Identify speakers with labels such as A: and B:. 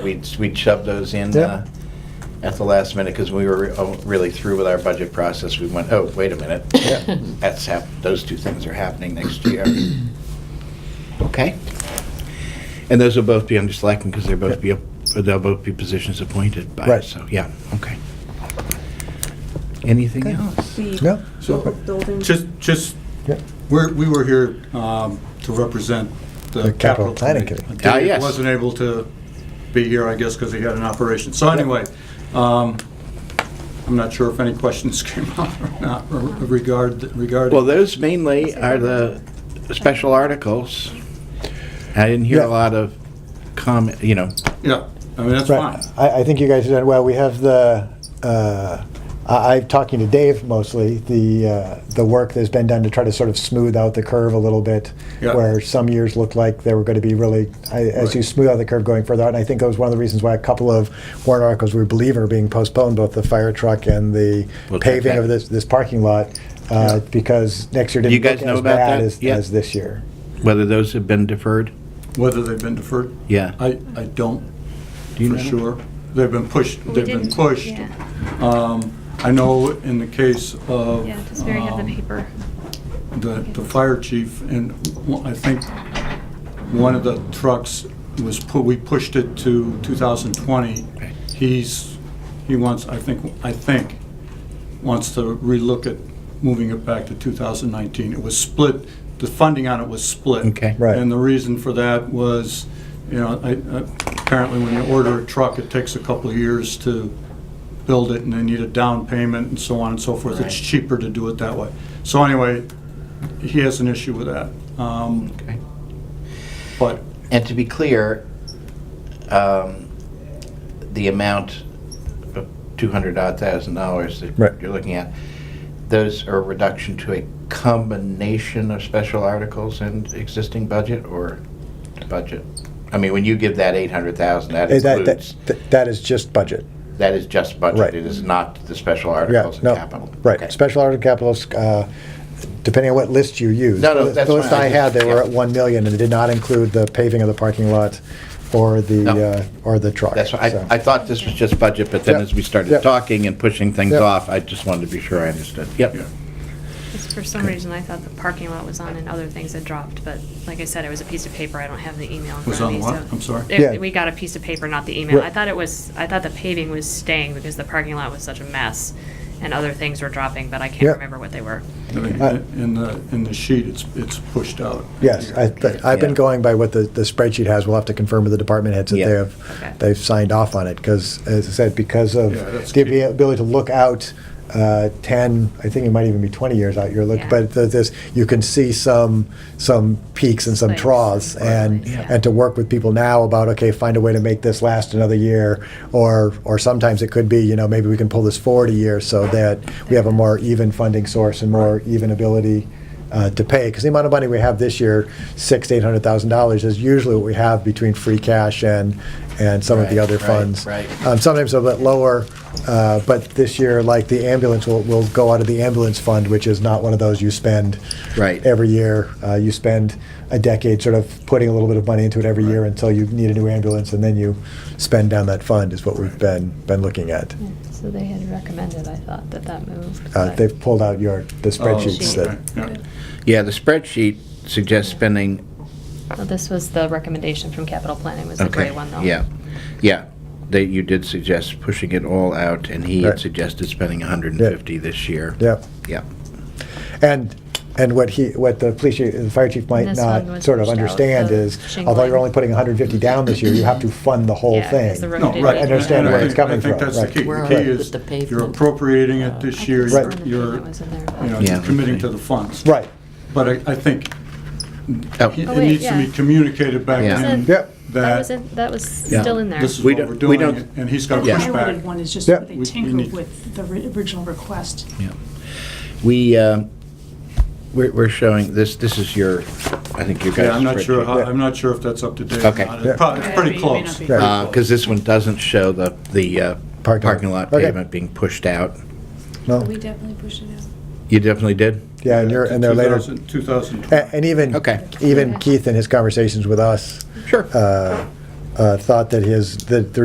A: We'd, we'd shove those in
B: Yep.
A: uh, at the last minute, because we were re- oh, really through with our budget process. We went, oh, wait a minute.
B: Yeah.
A: That's hap, those two things are happening next year. Okay? And those will both be under selectmen, because they'll both be, up- they'll both be positions appointed by,
B: Right.
A: so, yeah, okay. Anything else?
B: Yeah.
C: the
B: So,
C: building.
D: Just, just,
B: yeah,
D: we're, we were here um, to represent
B: The capital
D: the capital
B: planning
D: committee.
B: committee.
A: Ah,
D: David
A: yes.
D: wasn't able to be here, I guess, because he had an operation. So anyway, um, I'm not sure if any questions came up or not regard,
A: Well,
D: regarding.
A: those mainly are the special articles. I didn't hear
B: Yeah.
A: a lot of comment, you know,
D: Yeah, I mean, that's fine.
B: right. I, I think you guys did, well, we have the, uh, I, I'm talking to Dave mostly, the, uh, the work that's been done to try to sort of smooth out the curve a little bit,
D: Yeah.
B: where some years looked like they were going to be really, I- as you
D: Right.
B: smooth out the curve going further out, and I think that was one of the reasons why a couple of warrant articles we believe are being postponed, both the fire truck and the
A: We'll check
B: paving of
A: that.
B: this, this parking lot, uh, because next year
A: You
B: didn't
A: guys
B: look
A: know
B: as
A: about
B: bad
A: that?
B: as,
A: Yeah.
B: as this year.
A: whether those have been deferred?
D: Whether they've been deferred?
A: Yeah.
D: I, I don't,
A: Do you
D: for
A: know?
D: sure. They've been pushed,
E: We
D: they've been
E: didn't-
D: pushed.
E: Yeah,
D: Um, I know in the case of.
E: yeah, does Mary have the
D: um,
E: paper?
D: the, the fire chief, and one- I think one of the trucks was, pu- we pushed it to 2020. He's, he wants, I think, I think, wants to relook at moving it back to 2019. It was split, the funding on it was split.
A: Okay.
B: Right.
D: And the reason for that was, you know, I- I- apparently when you order a truck, it takes a couple of years to build it, and they need a down payment and so on and so forth. It's cheaper to do it that way. So anyway, he has an issue with that. Um,
A: Okay.
D: But,
A: And to be clear, um, the amount of two hundred odd thousand dollars
B: Right.
A: that you're looking at, those are a reduction to a combination of special articles and existing budget or budget? I mean, when you give that eight hundred thousand, that
B: Eh, That,
A: includes,
B: that, that is just budget.
A: that is just
B: Right.
A: budget, it is not the special
B: Yeah,
A: articles and
B: no,
A: capital. Okay.
B: right, special article capitals, uh, depending on what list you use.
A: No, no,
B: The-
A: that's
B: The list
A: fine.
B: I had, they were
A: Yeah.
B: at 1 million, and it did not include the paving of the parking lot or the,
A: No.
B: uh, or the truck.
A: That's, what-
B: so.
A: I, I thought this was just budget, but then
B: Yep.
A: as we started
B: Yep.
A: talking and pushing things
B: Yep.
A: off, I just wanted to be sure I understood. Yep.
D: yeah.
E: Because for some reason, I thought the parking lot was on and other things had dropped, but like I said, it was a piece of paper, I don't have the email in
D: Was
E: front of
D: on
E: me, so.
D: what? I'm sorry?
E: It-
B: Yeah.
E: We got a piece of paper, not the email.
B: Right.
E: I thought it was, I thought the paving was staying because the parking lot was such a mess, and other things were dropping, but I
B: Yeah.
E: can't remember what they were.
D: I think
B: Uh,
D: In the, in the sheet, it's, it's pushed out.
B: Yes, I, but I've been
A: Yeah.
B: going by what the, the spreadsheet has, we'll have to confirm with the department heads that they
A: Yeah.
E: Okay.
B: have, they've signed off on it, because, as I said, because of
D: Yeah, that's
B: the
D: key.
B: ability to look out uh, 10, I think it might even be 20 years out, you're looking,
E: Yeah.
B: but th- this, you can see some, some peaks and some
E: Spikes.
B: troughs, and,
E: Right, yeah.
B: and to work with people now about, okay, find a way to make this last another year, or, or sometimes it could be, you know, maybe we can pull this forward a year so that we have a more even funding source and more even ability uh, to pay. Because the amount of money we have this year, six to eight hundred thousand dollars, is usually what we have between free cash and, and some of the
A: Right,
B: other
A: right,
B: funds.
A: right.
B: Um, Sometimes a bit lower, uh, but this year, like the ambulance, will, will go out of the ambulance fund, which is not one of those you spend
A: Right.
B: every year. Uh, you spend a decade sort of putting a little bit of money into it every year until you need a new ambulance, and then you spend down that fund, is what we've been, been looking at.
E: So they had recommended, I thought, that that moved.
B: Uh, They've pulled out your, the
E: Oh,
B: spreadsheets
E: okay.
B: that,
D: Oh, Yeah.
A: Yeah, the spreadsheet suggests spending
E: This was the recommendation from capital planning, was the
A: Okay.
E: gray one, though.
A: Yeah, yeah. They, you did suggest pushing it all out, and he had
B: Right.
A: suggested spending 150 this year.
B: yeah.
A: Yeah.
B: And, and what he, what the police, chief- the fire chief might
E: This one
B: not
E: was
B: sort of
E: pushed out,
B: understand
E: the
B: is, although you're
E: shingling.
B: only putting 150 down this year, you have to fund the whole
E: Yeah, 'cause the
B: thing.
E: road
D: No,
E: did
D: right.
E: get-
B: I understand
D: And I
B: where it's
D: think-
B: coming
D: I
B: from,
D: think that's the
B: right.
D: key.
F: Where
D: The
F: are
D: key
F: the-
D: is
F: the pavement? Uh,
D: you're appropriating it
E: I
D: this
E: think
D: year,
E: it's
B: Right.
E: on the
D: you're, you're,
E: pavement was in there.
D: you know,
A: Yeah.
D: you're committing to the funds.
B: Right,
D: But I, I think
A: Oh,
D: it
E: Oh,
D: it
E: wait,
D: needs to
E: yeah.
D: be communicated back
A: Yeah.
D: to him
B: yep,
E: That was,
D: that
E: in- that was
A: Yeah.
E: still in there.
D: this is
A: We
D: what we're
A: don't- we
D: doing,
A: don't-
D: and he's
C: The
D: got to push
C: highlighted
D: back.
C: one is just
B: Yeah.
C: where they
D: We- we
C: tinkered
D: need-
C: with the ri- original request.
A: Yeah. We, um, we're we're showing, this, this is your, I think your guys'
D: Yeah, I'm not sure, how-
B: Yeah.
D: I'm not sure if that's up to date
A: Okay. Uh,
D: or not.
B: Yeah.
D: It's prob- It's pretty
C: It may not
D: close.
C: be.
B: Right.
A: Because this one doesn't show the, the uh,
B: Parking lot.
A: parking lot
B: Okay.
A: pavement being pushed out.
B: no,
G: We definitely pushed it out.
A: You definitely did?
B: yeah, and you're, and they're later,
D: 2000 2020.
B: a- and even,
A: Okay.
B: even
E: Okay.
B: Keith in his conversations with us,
A: Sure.
B: uh, uh, thought that his, that the